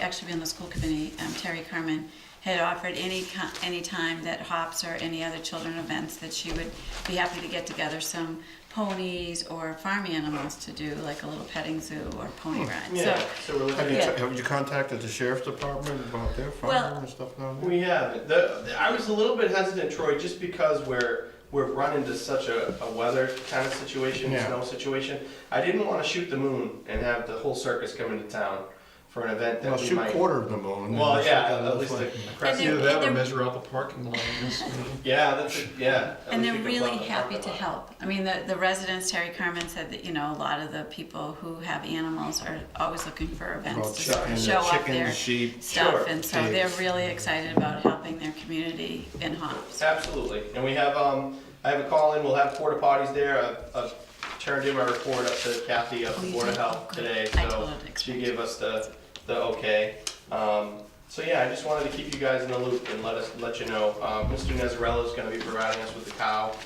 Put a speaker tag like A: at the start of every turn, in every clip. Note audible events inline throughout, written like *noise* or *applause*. A: actually been on the school committee, um, Terry Carmen, had offered any, co- any time that hops or any other children events that she would be happy to get together some ponies or farm animals to do, like a little petting zoo or pony ride.
B: Yeah,
A: So,
B: so we're
C: Have
B: looking
C: you,
B: at,
A: Yeah.
C: have you contacted the sheriff's department about their
A: Well-
C: fire and stuff down there?
B: we have, it. the, the- I was a little bit hesitant, Troy, just because we're, we're run into such a, a weather kind of situation,
C: Yeah.
B: snow situation. I didn't wanna shoot the moon and have the whole circus come into town for an event
C: Well,
B: that we
C: shoot
B: might.
C: quarter of the moon. and
B: Well,
C: that's what
B: yeah,
C: that
B: at
C: looks
B: least a
C: like.
B: crest.
A: And
D: Either that
A: they're-
D: or measure out the parking lot. I guess.
B: Yeah, that's, a- yeah. at
A: and
B: least
A: they're
B: we could
A: really
B: block the
A: happy to
B: parking lot.
A: help. I mean, the, the residents, Terry Carmen said that, you know, a lot of the people who have animals are always looking for
C: Well,
A: events to sort
C: chicken,
A: of show off their
C: chickens, sheep.
A: stuff.
B: Sure.
A: And so they're
C: Pigs.
A: really excited about helping their community in hops.
B: Absolutely, and we have, um, I have a call in, we'll have porta potties there, I've, I've turned in my report up to Kathy up
A: Oh,
B: at
A: you
B: Board of
A: did? Oh,
B: Health
A: good.
B: today,
A: I told
B: so
A: her to
B: she
A: expect
B: gave us the, the okay. Um, so yeah, I just wanted to keep you guys in the loop and let us, let you know, uh, Mr. Nezarello's gonna be providing us with the cow.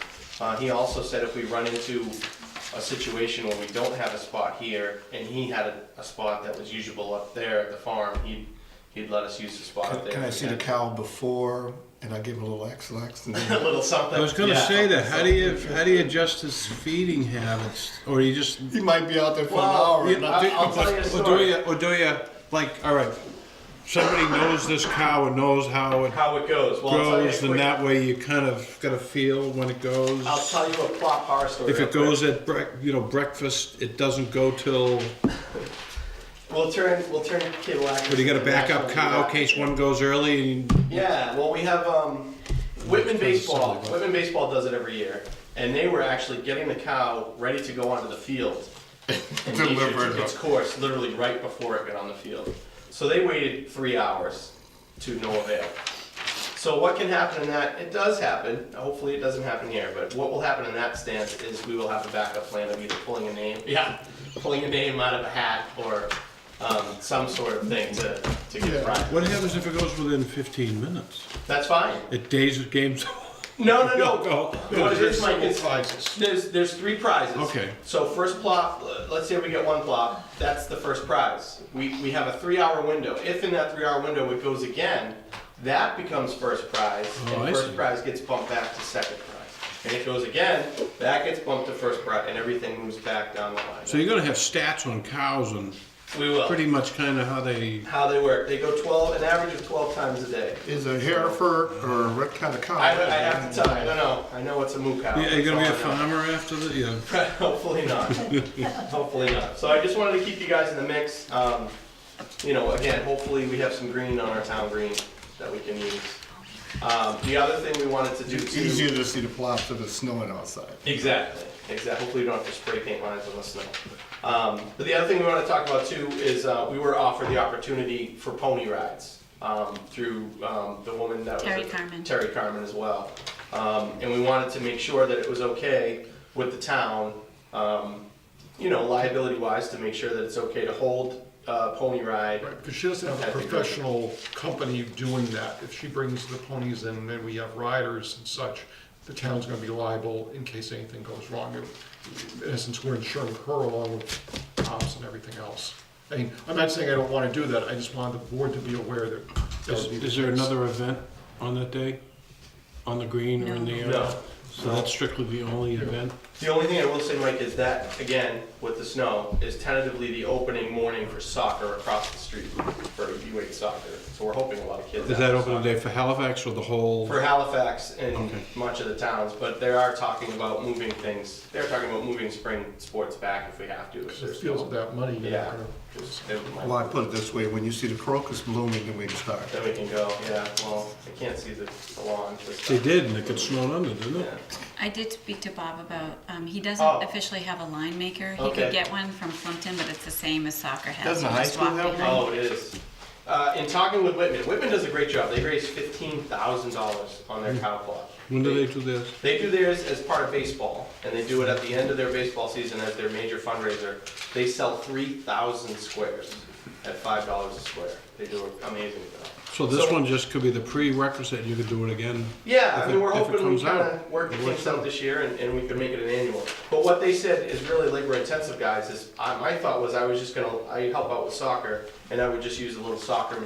B: Uh, he also said if we run into a situation where we don't have a spot here, and he had a, a spot that was usable up there at the farm, he'd, he'd let us use the spot up
C: Can-
B: there.
C: Can I see the cow before and I give him a little X-lax
B: *laughs*
C: and
B: A
C: then?
B: little something.
E: I was gonna
B: yeah.
E: say that. How do you how do you adjust his feeding habits, or you just
C: He might be out there for an
B: Well,
C: hour and
B: yeah,
C: I
B: I-
C: think.
B: I'll tell you a
E: or do
B: story.
E: you or do you like all right? Somebody knows this cow and knows how it
B: How it goes. Well, I'll tell you a
E: grows, and
B: quick-
E: that way you kind of got a feel when it goes.
B: I'll tell you a plot horror story.
E: If
B: real
E: it
B: quick.
E: goes at brec- you know breakfast, it doesn't go till.
B: we'll turn we'll turn cable access.
E: But you got a backup
B: to
E: cow in
B: national-
E: case one goes early. And,
B: Yeah, well, we have um, Whitman baseball.
C: something like that.
B: Whitman baseball does it every year, and they were actually getting the cow ready to go onto the field. And nature
C: Delivered.
B: took its course literally right before it got on the field. So they waited three hours to no avail. So what can happen in that? It does happen. Hopefully, it doesn't happen here. But what will happen in that stance is we will have a backup plan of either pulling a name, *laughs* yeah, pulling a name out of a hat or um, some sort of thing to to get
C: Yeah.
B: fried.
E: what happens if it goes within 15 minutes?
B: That's fine.
E: It days of games. *laughs*
B: No, no, no.
E: Go.
B: What it is, Mike, is
C: prizes.
B: there's there's three prizes.
E: Okay.
B: So first plot, let's say we get one plot, that's the first prize. We we have a three-hour window. If in that three-hour window it goes again, that becomes first prize,
E: Oh, I
B: and first
E: see.
B: prize gets bumped back to second prize. And it goes again, that gets bumped to first prize, and everything moves back down the line.
E: So you're gonna have stats on cows and
B: we will.
E: pretty much kind of how they.
B: How they work? They go 12, an average of 12 times a day.
C: Is a Hereford or what kind of cow?
B: I, I have to tell you, I don't know. I know it's a moo cow.
E: Yeah, are you gonna be
B: That's
E: a
B: all I know.
E: farmer after the
B: *laughs*
E: yeah?
B: Hopefully not. hopefully not. So I just wanted to keep you guys in the mix. Um, you know, again, hopefully we have some green on our town green that we can use. Um, the other thing we wanted to do
C: It's
B: too.
C: easier to see the plots if it's snowing outside.
B: Exactly. Exactly. Hopefully, you don't have to spray paint lines on the snow. Um, but the other thing we want to talk about too is uh, we were offered the opportunity for pony rides um, through um, the woman that
A: Terry
B: was
A: Carmen.
B: Terry Carmen as well, um, and we wanted to make sure that it was okay with the town, um, you know, liability wise, to make sure that it's okay to hold a pony ride.
D: Right, because she doesn't have a
B: That'd be great.
D: professional company doing that. If she brings the ponies in, then we have riders and such, the town's gonna be liable in case anything goes wrong. In essence, we're insuring her along with cops and everything else. I mean, I'm not saying I don't wanna do that, I just wanted the board to be aware that. that
E: Is,
D: would be the
E: is there
D: case.
E: another event on that day, on the green or in the
A: No.
E: air?
B: No.
E: So that's strictly the only event.
B: The only thing I will say, Mike, is that, again, with the snow, is tentatively the opening morning for soccer across the street, for U8 soccer. So we're hoping a lot of kids.
E: Is
B: out
E: that
B: for
E: open
B: soccer.
E: day for Halifax or the whole?
B: For Halifax and
E: Okay.
B: much of the towns, but they are talking about moving things, they're talking about moving spring sports back if we have to. if
D: Because it
B: there's
D: feels
B: no-
D: without money, you're not
B: Yeah.
D: gonna-
B: just- it might-
C: Well, I put it this way, when you see the crocus blooming, then we can start.
B: Then we can go, yeah, well, I can't see the the lawn. this
E: They
B: time.
E: did, and it got snowed under, didn't
B: Yeah.
E: it?
A: I did speak to Bob about, um, he doesn't
B: Oh.
A: officially have a line maker. He
B: Okay.
A: could get one from Plimpton, but it's the same as soccer has.
C: Doesn't
A: You
C: high
A: just
C: school
A: walk
C: have one?
A: behind.
B: Oh, it is. Uh, in talking with Whitman, Whitman does a great job, they raised fifteen thousand dollars on their cow plot.
E: Hmm. When do they do this?
B: They do theirs as part of baseball, and they do it at the end of their baseball season as their major fundraiser. They sell three thousand squares at five dollars a square. They They do an amazing job.
E: So this
B: So-
E: one just could be the prerequisite, you could do it again.
B: Yeah,
E: If
B: I
E: it-
B: mean, we're
E: if it
B: hoping we
E: comes
B: kind
E: out,
B: of work
E: it
B: things
E: works
B: out this year and, and we can make it an annual. But what they said is really labor intensive, guys, is, I, my thought was I was just gonna, I help out with soccer and I would just use a little soccer